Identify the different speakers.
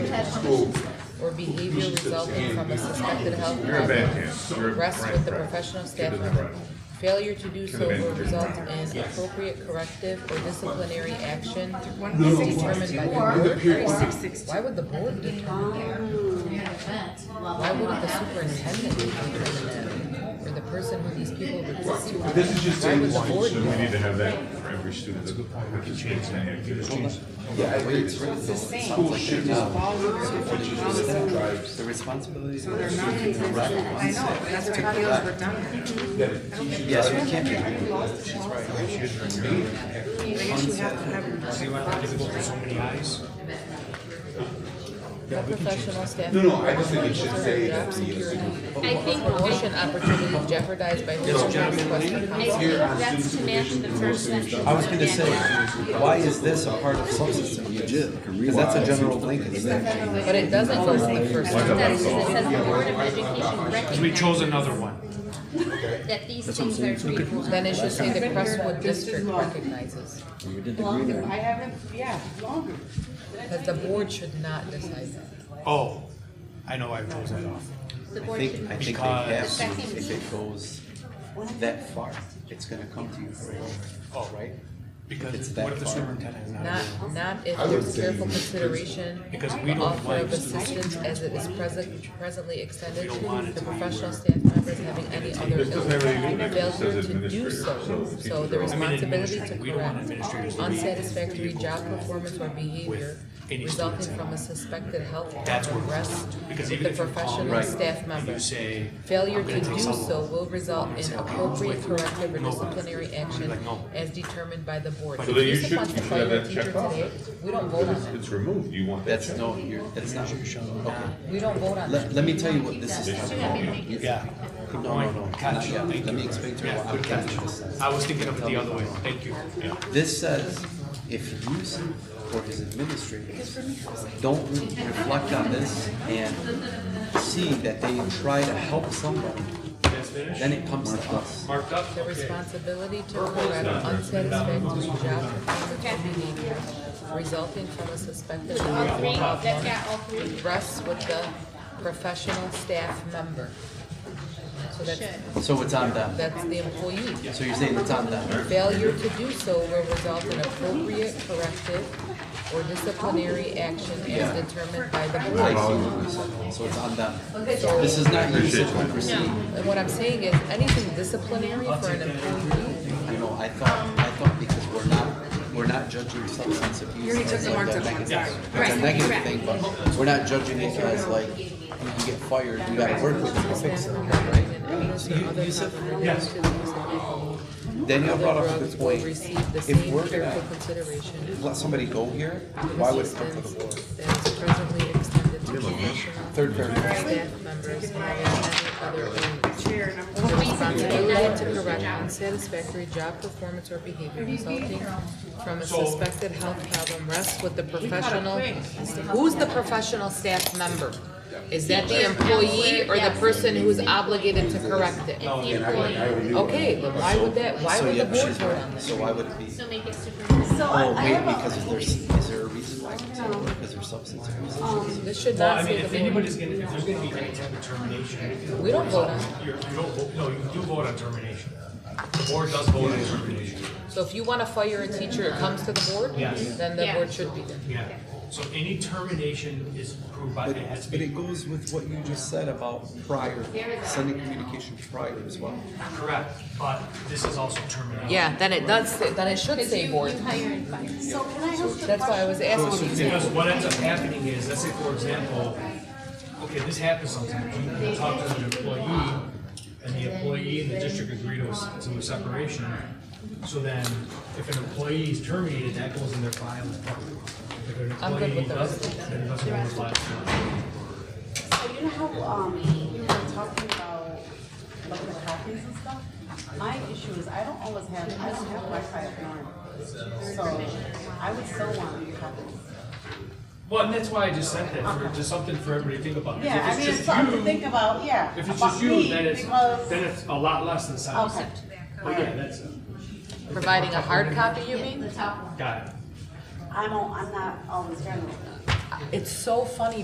Speaker 1: school.
Speaker 2: or behavior resulting from a suspected health
Speaker 3: You're a bad
Speaker 2: problem,
Speaker 3: kid. You're a
Speaker 2: rests
Speaker 3: right,
Speaker 2: with the
Speaker 3: right.
Speaker 2: professional
Speaker 3: Kid
Speaker 2: staff
Speaker 3: doesn't
Speaker 2: member.
Speaker 3: have right.
Speaker 2: Failure to do so
Speaker 3: Could've been
Speaker 2: will
Speaker 3: different.
Speaker 2: result in appropriate corrective or disciplinary action
Speaker 1: No,
Speaker 2: as determined by the
Speaker 1: why? With a
Speaker 2: board.
Speaker 1: period.
Speaker 2: Why would the board
Speaker 4: Um,
Speaker 2: determine that? Why wouldn't the superintendent determine that? Or the person who these people report to?
Speaker 1: But this is just
Speaker 2: Why would the
Speaker 1: saying-
Speaker 2: board?
Speaker 3: So we need to have that for every student. That's a good point. We can change that. activity.
Speaker 5: Yeah, I agree. It's really
Speaker 6: the
Speaker 5: the
Speaker 6: same.
Speaker 1: School should just follow.
Speaker 5: the responsibilities.
Speaker 6: So they're not consistent. I know, that's why it feels redundant.
Speaker 5: Yes, you can't be.
Speaker 6: I guess you have to have.
Speaker 2: The professional staff.
Speaker 1: No, no, I just think it should say that the
Speaker 2: Job security.
Speaker 4: I think,
Speaker 2: Promotion opportunities jeopardized by.
Speaker 4: I
Speaker 2: Yes,
Speaker 4: think that's to match the first sentence.
Speaker 5: I was gonna say, why is this a part of substance abuse? Because that's a general blanket statement.
Speaker 2: But it doesn't go to the first. one.
Speaker 4: That's, it says the Board of Education
Speaker 7: We
Speaker 4: recognizes
Speaker 7: chose another one.
Speaker 4: that these things are treatable.
Speaker 2: Then it should say the Crestwood District recognizes,
Speaker 5: We did the
Speaker 6: I
Speaker 5: green one.
Speaker 6: haven't, yeah, longer.
Speaker 2: because the board should not decide that.
Speaker 7: Oh, I know I chose that off.
Speaker 4: The
Speaker 5: I
Speaker 4: board should.
Speaker 5: think, I think they have, to.
Speaker 4: Because-
Speaker 5: if it goes that far, it's gonna come to you for a-
Speaker 7: Oh, right.
Speaker 5: It's
Speaker 7: Because
Speaker 5: that
Speaker 7: what if the
Speaker 5: far.
Speaker 7: superintendent is not?
Speaker 2: Not, not if
Speaker 1: I would
Speaker 2: there's
Speaker 1: say
Speaker 2: careful
Speaker 1: the
Speaker 2: consideration,
Speaker 7: Because we
Speaker 2: the
Speaker 7: don't
Speaker 2: offer
Speaker 7: like
Speaker 2: of
Speaker 7: students
Speaker 2: assistance as it is present, presently extended
Speaker 7: don't want
Speaker 2: to
Speaker 7: it
Speaker 2: the
Speaker 7: to be
Speaker 2: professional
Speaker 7: where-
Speaker 2: staff members having any other
Speaker 3: This doesn't have anything to do
Speaker 2: illness.
Speaker 3: with it. It says
Speaker 2: Failure to do
Speaker 3: administrative, so
Speaker 2: so,
Speaker 3: the
Speaker 2: so
Speaker 3: teachers
Speaker 2: the
Speaker 3: are- I mean,
Speaker 2: responsibility to
Speaker 7: administrative. We don't want
Speaker 2: correct
Speaker 7: administrators to be
Speaker 2: unsatisfactory
Speaker 7: equal
Speaker 2: job
Speaker 7: with
Speaker 2: performance or behavior
Speaker 7: any
Speaker 2: resulting
Speaker 7: students.
Speaker 2: from a suspected health
Speaker 7: That's
Speaker 2: problem
Speaker 7: where we're
Speaker 2: rests
Speaker 7: at.
Speaker 2: with
Speaker 7: Because even
Speaker 2: the
Speaker 7: if you call
Speaker 2: professional staff
Speaker 7: and
Speaker 2: member.
Speaker 7: you say.
Speaker 2: Failure
Speaker 7: "I'm
Speaker 2: to
Speaker 7: gonna
Speaker 2: do
Speaker 7: take someone,"
Speaker 2: so will result
Speaker 3: "Oh,
Speaker 2: in appropriate corrective or disciplinary action
Speaker 7: Like, no.
Speaker 2: as determined by the board.
Speaker 7: So
Speaker 2: If
Speaker 3: then you
Speaker 2: Lisa
Speaker 3: should-
Speaker 2: wants
Speaker 3: you
Speaker 2: to
Speaker 3: should
Speaker 2: fire
Speaker 3: have
Speaker 2: the
Speaker 3: that
Speaker 2: teacher
Speaker 3: checked off.
Speaker 2: today, We don't vote on
Speaker 3: It's,
Speaker 2: that.
Speaker 3: it's removed. You want that
Speaker 5: That's,
Speaker 3: checked.
Speaker 5: no, you're, that's not, okay.
Speaker 2: We don't vote on
Speaker 5: Let,
Speaker 2: that.
Speaker 5: let me tell you what this is.
Speaker 7: Yeah.
Speaker 5: No, no, no, not yet. Let
Speaker 7: Thank you.
Speaker 5: me explain to you
Speaker 7: Yeah,
Speaker 5: what I'm
Speaker 7: good catch.
Speaker 5: catching this says.
Speaker 7: I was thinking of it the other way. Thank you. Yeah.
Speaker 5: This says, if you or his administrators don't reflect on this and see that they try to help somebody,
Speaker 7: That's finished?
Speaker 5: then it comes to us.
Speaker 7: Marked up?
Speaker 2: The responsibility to correct unsatisfactory job performance resulting from a suspected
Speaker 4: All
Speaker 2: health
Speaker 4: three, that's
Speaker 2: problem
Speaker 4: got all three.
Speaker 2: rests with the professional staff member. So that's,
Speaker 5: So it's on them.
Speaker 2: that's the employee.
Speaker 5: So you're saying it's on them.
Speaker 2: Failure to do so will result in appropriate corrective or disciplinary action as determined by the
Speaker 5: I see
Speaker 2: board.
Speaker 5: what you said. So it's on them. This is not you said one percent.
Speaker 2: And what I'm saying is, anything disciplinary for an employee,
Speaker 5: You know, I thought, I thought because we're not, we're not judging substance abuse.
Speaker 6: You already took
Speaker 5: as
Speaker 6: the
Speaker 5: like
Speaker 6: marked
Speaker 5: a
Speaker 6: up one,
Speaker 5: negative-
Speaker 6: sorry.
Speaker 5: It's a negative thing, but we're not judging it as like, you can get fired, you gotta work with it to fix it, right?
Speaker 2: and illness or other comparable to these people,
Speaker 5: Danielle brought up a
Speaker 2: drugs
Speaker 5: good
Speaker 2: will
Speaker 5: point.
Speaker 2: receive the
Speaker 5: If
Speaker 2: same
Speaker 5: we're
Speaker 2: careful
Speaker 5: gonna
Speaker 2: consideration.
Speaker 5: let somebody go here, why would it come to the board?
Speaker 2: assistance That is presently extended to professional
Speaker 5: Third paragraph.
Speaker 2: staff members having any other illness.
Speaker 6: Chair number.
Speaker 2: The responsibility to correct unsatisfactory job performance or behavior resulting from a suspected health problem rests with the professional. Who's the professional staff member? Is that the employee or the person who's obligated to correct it?
Speaker 4: The employee,
Speaker 2: Okay, but why would that, why
Speaker 5: So
Speaker 2: would the
Speaker 5: yeah,
Speaker 2: board
Speaker 5: she's
Speaker 2: vote on
Speaker 5: right.
Speaker 2: that?
Speaker 5: So why would it be?
Speaker 4: so make it super.
Speaker 5: Oh, maybe because of their, is there a reason why it's not work? Is there substance abuse? issues?
Speaker 2: This should
Speaker 7: Well, I
Speaker 2: not
Speaker 7: mean,
Speaker 2: say
Speaker 7: if
Speaker 2: the board.
Speaker 7: anybody's gonna, if there's gonna be any type of termination,
Speaker 2: We don't vote on it.
Speaker 7: you're, you don't, vote- no, you do vote on termination. The board does vote on termination.
Speaker 2: So if you wanna fire a teacher, it comes to the board?
Speaker 7: Yes.
Speaker 2: Then the
Speaker 4: Yeah.
Speaker 2: board should be there.
Speaker 7: Yeah. So any termination is approved by,
Speaker 5: But
Speaker 7: it has to
Speaker 5: but
Speaker 7: be
Speaker 5: it goes with what you just said about prior, sending communication prior as well.
Speaker 7: correct, but this is also termination.
Speaker 2: Yeah, then it does, say- then it should say board.
Speaker 4: You hire and fire.
Speaker 8: So can I ask
Speaker 2: That's why I was asking you.
Speaker 7: Because what ends up happening is, let's say for example, okay, this happens sometimes, you talk to an employee, and the employee and the district agree to a, s- to a separation, so then if an employee is terminated, that goes in their file. If an
Speaker 2: I'm good
Speaker 7: employee
Speaker 2: with those.
Speaker 7: doesn't, then it doesn't go in the file.
Speaker 6: So you know how, um, you were talking about like the copies and stuff? My issue is I don't always have, I don't have Wi-Fi at home. So I would still want copies.
Speaker 7: Well, and that's why I just said that, for, just something for everybody to think about.
Speaker 6: Yeah,
Speaker 7: If
Speaker 6: I
Speaker 7: it's
Speaker 6: mean,
Speaker 7: just
Speaker 6: it's something to
Speaker 7: you-
Speaker 6: think about, yeah.
Speaker 7: If it's
Speaker 6: about
Speaker 7: just you,
Speaker 6: me,
Speaker 7: then it's,
Speaker 6: because-
Speaker 7: then it's a lot less than seven
Speaker 6: Okay.
Speaker 7: cents. But yeah, that's, it.
Speaker 2: Providing a hard copy, you mean?
Speaker 7: got it.
Speaker 6: I don't, I'm not always friendly with them.
Speaker 2: It's so funny